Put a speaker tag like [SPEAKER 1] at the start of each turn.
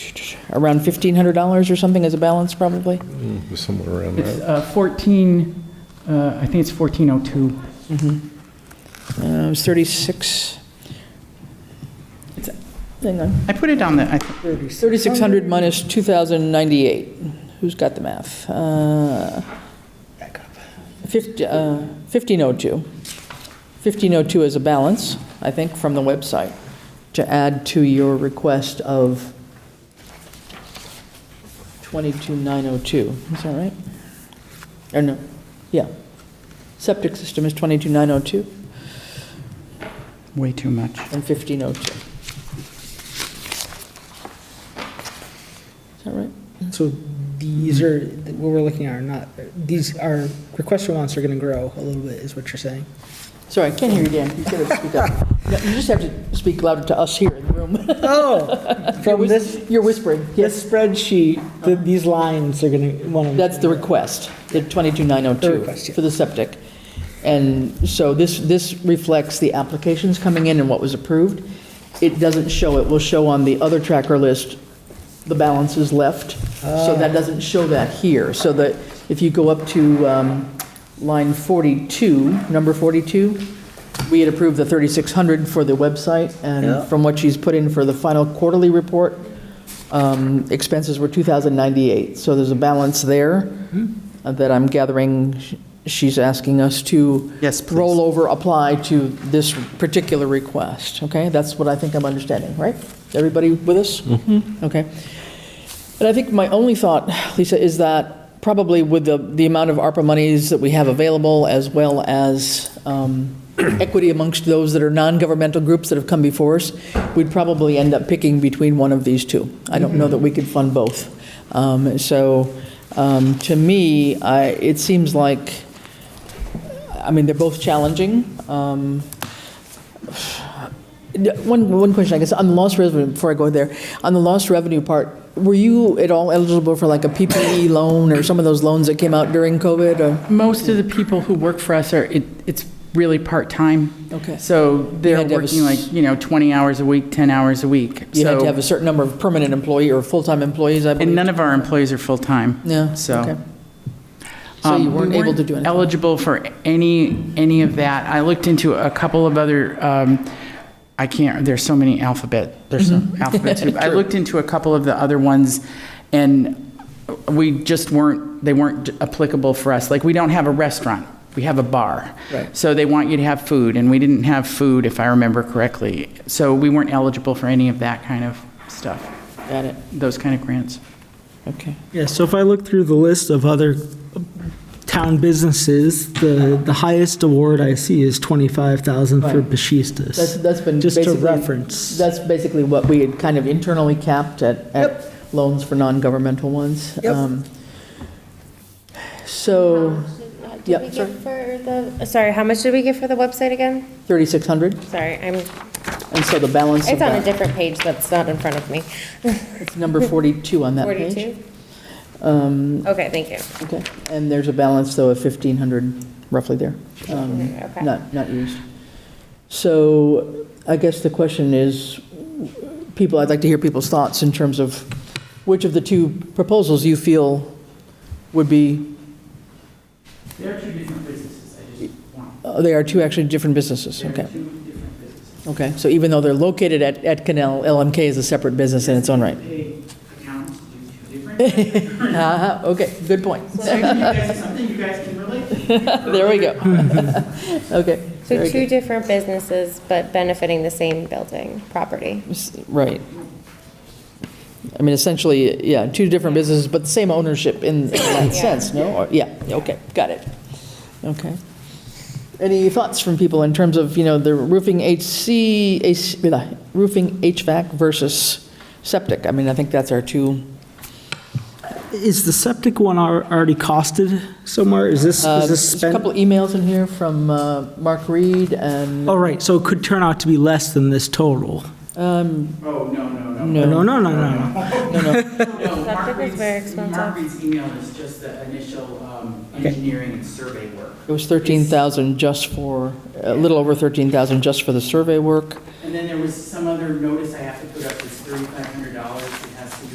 [SPEAKER 1] around $1,500 or something as a balance, probably?
[SPEAKER 2] Mm, somewhere around
[SPEAKER 3] It's
[SPEAKER 2] that.
[SPEAKER 3] uh, 14, uh, I think it's 1402.
[SPEAKER 1] Uh, It was 36. It's- Hang on.
[SPEAKER 3] I put it on the, I th-
[SPEAKER 1] 3,600 minus 2,098. Who's got the math? Uh, fifty- uh, 1502. 1502 is a balance, I think, from the website, to add to your request of 22,902. Is that right? Or no? Yeah. Septic system is 22,902
[SPEAKER 3] way too much.
[SPEAKER 1] and 1502. Is that right?
[SPEAKER 4] So these are, what we're looking at are not, these, our request for wants are going to grow a little bit, is what you're saying?
[SPEAKER 1] Sorry, I can't hear you, Dan. You should have speak up. No, You just have to speak louder to us here in the room.
[SPEAKER 4] Oh,
[SPEAKER 1] You're
[SPEAKER 4] from
[SPEAKER 1] whis-
[SPEAKER 4] this,
[SPEAKER 1] You're whispering, yes.
[SPEAKER 4] this spreadsheet, th- these lines are going to, one of them.
[SPEAKER 1] That's the request, the
[SPEAKER 4] The request,
[SPEAKER 1] 22902
[SPEAKER 4] yeah.
[SPEAKER 1] for the septic. And so this, this reflects the applications coming in and what was approved. It doesn't show, it will show on the other tracker list, the balances left.
[SPEAKER 4] Ah.
[SPEAKER 1] So that doesn't show that here. So that if you go up to um, line 42, number 42, we had approved the 3,600 for the website.
[SPEAKER 4] Yeah.
[SPEAKER 1] And from what she's put in for the final quarterly report, um, expenses were 2,098, so there's a balance there
[SPEAKER 3] Mm-hmm.
[SPEAKER 1] uh, that I'm gathering sh- she's asking us to.
[SPEAKER 3] Yes, please.
[SPEAKER 1] Roll over, apply to this particular request, okay? That's what I think I'm understanding, right? Everybody with us? Mm-hmm. Okay. And I think my only thought, Lisa, is that probably with the, the amount of ARPA monies that we have available, as well as um, equity amongst those that are non-governmental groups that have come before us, we'd probably end up picking between one of these two. I don't know that we could fund both. Um, So um, to me, I, it seems like, I mean, they're both challenging. Um, one, one question, I guess, on the lost revenue, before I go there, on the lost revenue part, were you at all eligible for like a PPE loan or some of those loans that came out during COVID? Or,
[SPEAKER 3] Most of the people who work for us are, it- it's really part-time.
[SPEAKER 1] okay.
[SPEAKER 3] So they're
[SPEAKER 1] had to have a
[SPEAKER 3] working
[SPEAKER 1] s-
[SPEAKER 3] like, you know, 20 hours a week, 10 hours a week.
[SPEAKER 1] You had to
[SPEAKER 3] So-
[SPEAKER 1] have a certain number of permanent employee or full-time employees, I believe?
[SPEAKER 3] And none of our employees are full-time.
[SPEAKER 1] Yeah,
[SPEAKER 3] So,
[SPEAKER 1] okay. So
[SPEAKER 3] um,
[SPEAKER 1] you
[SPEAKER 3] we
[SPEAKER 1] weren't able to do anything?
[SPEAKER 3] Eligible for any, any of that. I looked into a couple of other, um, I can't, there's so many alphabet, there's some
[SPEAKER 1] Mm-hmm.
[SPEAKER 3] alphabet soup. I looked into a couple of the other ones and we just weren't, they weren't applicable for us. Like, we don't have a restaurant, we have a bar.
[SPEAKER 1] Right.
[SPEAKER 3] So they want you to have food and we didn't have food, if I remember correctly. So we weren't eligible for any of that kind of stuff,
[SPEAKER 1] Got it,
[SPEAKER 3] those kind of grants.
[SPEAKER 1] okay.
[SPEAKER 4] Yeah, so if I look through the list of other town businesses, the, the highest award I see is 25,000 for
[SPEAKER 1] Right. That's,
[SPEAKER 4] Bashistas.
[SPEAKER 1] that's been
[SPEAKER 4] Just
[SPEAKER 1] basically...
[SPEAKER 4] to reference.
[SPEAKER 1] That's basically what we had kind of internally capped at, at loans for non-governmental ones.
[SPEAKER 4] Yep.
[SPEAKER 1] Um, So,
[SPEAKER 5] Did
[SPEAKER 1] Yep,
[SPEAKER 5] we get
[SPEAKER 1] sorry.
[SPEAKER 5] for the, sorry, how much did we get for the website again?
[SPEAKER 1] 3,600,
[SPEAKER 5] Sorry, I'm,
[SPEAKER 1] and so the balance of
[SPEAKER 5] it's on a
[SPEAKER 1] that,
[SPEAKER 5] different page that's not in front of me.
[SPEAKER 1] it's number 42 on that page.
[SPEAKER 5] 42? Okay, thank you.
[SPEAKER 1] Um, Okay, and there's a balance, though, of 1,500 roughly there, um,
[SPEAKER 5] Okay.
[SPEAKER 1] not, not used. So I guess the question is, people, I'd like to hear people's thoughts in terms of which of the two proposals you feel would be,
[SPEAKER 3] They're two different businesses, I just want,
[SPEAKER 1] uh, they are two actually different businesses,
[SPEAKER 3] they're
[SPEAKER 1] okay?
[SPEAKER 3] two different businesses.
[SPEAKER 1] Okay, so even though they're located at, at Canal, LMK is a separate business in its own right.
[SPEAKER 3] They account to do two different.
[SPEAKER 1] Uh-huh, okay, good point.
[SPEAKER 3] So I think you guys- Something you guys can relate to.
[SPEAKER 1] There we go. Okay.
[SPEAKER 5] So
[SPEAKER 1] very
[SPEAKER 5] two
[SPEAKER 1] good.
[SPEAKER 5] different businesses, but benefiting the same building, property.
[SPEAKER 1] S- Right. I mean, essentially, yeah, two different businesses, but the same ownership in in that sense, no? Or- Yeah, okay, got it. Okay. Any thoughts from people in terms of, you know, the roofing HC, AC blah, roofing HVAC versus septic? I mean, I think that's our two,
[SPEAKER 4] Is the septic one al- already costed somewhere? Is this,
[SPEAKER 1] uh,
[SPEAKER 4] is this
[SPEAKER 1] there's a
[SPEAKER 4] spent?
[SPEAKER 1] couple emails in here from uh, Mark Reed and,
[SPEAKER 4] Oh, right, so it could turn out to be less than this total.
[SPEAKER 1] um,
[SPEAKER 3] Oh, no, no, no.
[SPEAKER 1] no.
[SPEAKER 4] No, no, no, no, no.
[SPEAKER 3] No, Mark
[SPEAKER 5] Septic is
[SPEAKER 3] Reed's-
[SPEAKER 5] very expensive.
[SPEAKER 3] Mark Reed's email is just the initial um, engineering and survey work.
[SPEAKER 1] It was 13,000 just for, a little over 13,000 just for the survey work.
[SPEAKER 3] And then there was some other notice I have to